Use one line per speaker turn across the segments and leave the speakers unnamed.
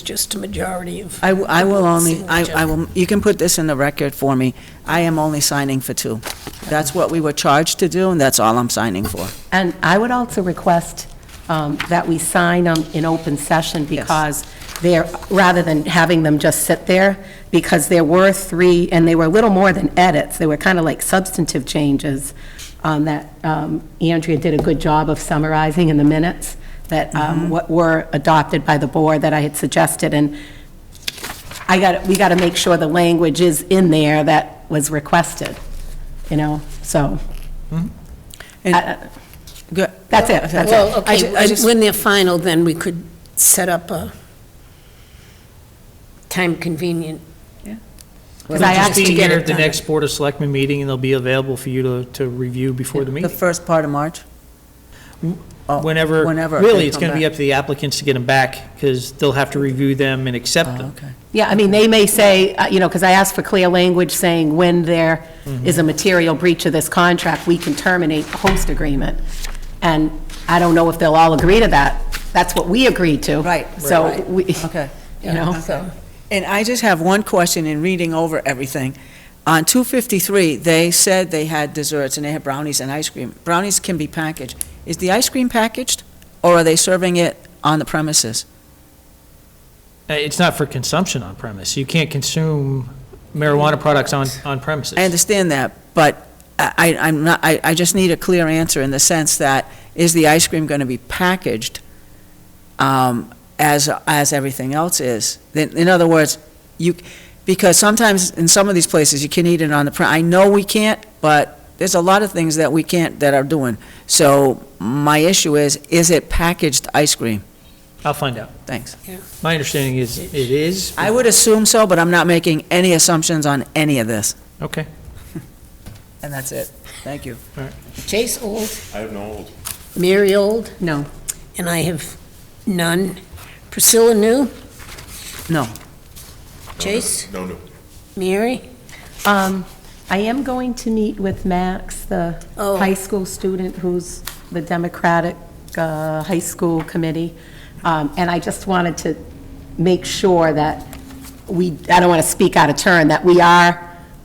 just a majority of,
I, w- I will only, I,
Signature.
I will, you can put this in the record for me. I am only signing for two. That's what we were charged to do, and that's all I'm signing for.
And I would also request um, that we sign them in open session
Yes.
because they're, rather than having them just sit there, because there were three, and they were a little more than edits, they were kind of like substantive changes um, that um, Andrea did a good job of summarizing in the minutes that um, what were adopted by the board that I had suggested. And I got, we got to make sure the language is in there that was requested, you know, so.
And-
I- I-
Good.
That's it, that's it.
well,
I ju-
okay,
I
when-
just-
when they're final, then we could set up a time convenient.
Because I
Just
asked
to
you,
get
Be here
it
at the
done.
next Board of Selectmen meeting, and they'll be available for you to, to review before the
The
meeting.
first part of March? Oh,
Whenever,
whenever
really,
they
it's
come
going to be
back.
up to the applicants to get them back, because they'll have to review them and accept
Oh,
them.
okay.
yeah, I mean, they may say, uh, you know, because I asked for clear language saying when there is a material breach of this contract, we can terminate the host agreement. And I don't know if they'll all agree to that. That's what we agreed to.
Right,
So
right.
we,
Okay.
you know,
So,
And I just have one question in reading over everything. On 253, they said they had desserts and they had brownies and ice cream. Brownies can be packaged. Is the ice cream packaged, or are they serving it on the premises?
Uh, It's not for consumption on premise. You can't consume marijuana products on, on premises.
I understand that, but I, I- I'm not, I, I just need a clear answer in the sense that, is the ice cream going to be packaged um, as, as everything else is? In in other words, you, because sometimes in some of these places, you can eat it on the, pre- I know we can't, but there's a lot of things that we can't, that are doing. So my issue is, is it packaged ice cream?
I'll find out.
Thanks.
My understanding is it is.
I would assume so, but I'm not making any assumptions on any of this.
Okay.
And that's it. Thank you.
Chase Old,
I have no old.
Mary Old,
no.
and I have none. Priscilla New?
No.
Chase?
No, no.
Mary?
Um, I am going to meet with Max, the
Oh.
high school student who's the Democratic uh, High School Committee, Um, and I just wanted to make sure that we, I don't want to speak out of turn, that we are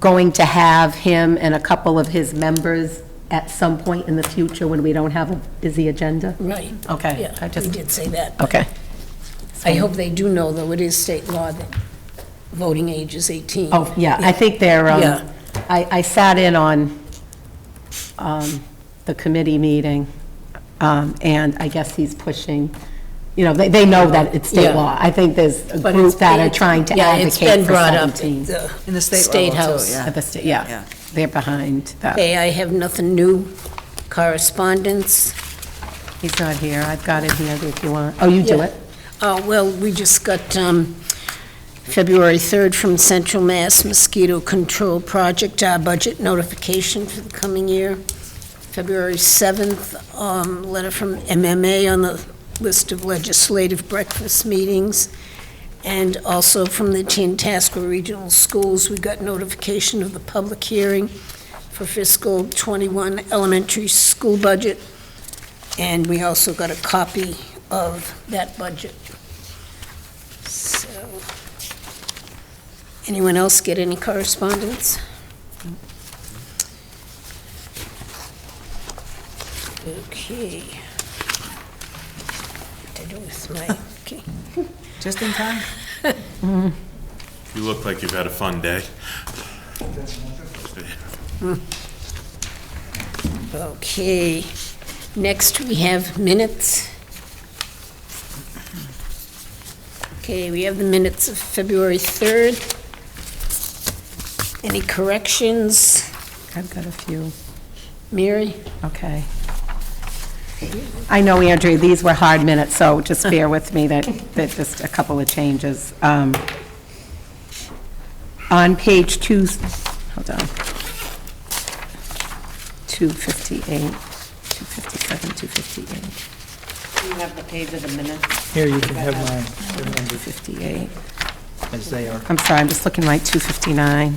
going to have him and a couple of his members at some point in the future when we don't have a busy agenda.
Right.
Okay, I
Yeah,
just-
we did say that.
Okay.
I hope they do know, though, it is state law that voting age is 18.
Oh, yeah, I think they're, um,
Yeah.
I, I sat in on um, the committee meeting, um, and I guess he's pushing, you know, they, they know that it's state
Yeah.
law. I think there's a
But
group
it's
that
been-
are trying to
yeah, it's been
advocate for
brought up at
17.
the
In the state
State
level, too,
House.
Oh, yeah.
At the sta-
Yeah.
Yeah, they're behind that.
Okay, I have nothing new. Correspondence?
He's not here, I've got it here if you want. Oh, you do
Yeah.
it?
Uh, Well, we just got um, February 3rd from Central Mass Mosquito Control Project, our budget notification for the coming year. February 7th, um, letter from MMA on the list of legislative breakfast meetings. And also from the Tantasco Regional Schools, we got notification of the public hearing for fiscal '21 elementary school budget. And we also got a copy of that budget. So, anyone else get any correspondence? Okay. What to do with my, okay.
Just in time?
You look like you've had a fun day.
Okay, next we have minutes. Okay, we have the minutes of February 3rd. Any corrections,
I've got a few.
Mary?
Okay. I know, Andrea, these were hard minutes, so just bear with me that, that just a couple of changes. Um, On page two, hold on. 258, 257, 258,
You have the page of the minutes,
Here, you can have mine
258.
as they are.
I'm sorry, I'm just looking right, 259.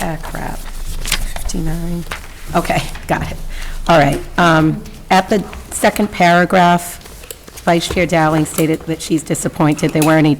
Ah, crap. 59. Okay, got it. All right. um, At the second paragraph, Vice Chair Dowling stated that she's disappointed there weren't any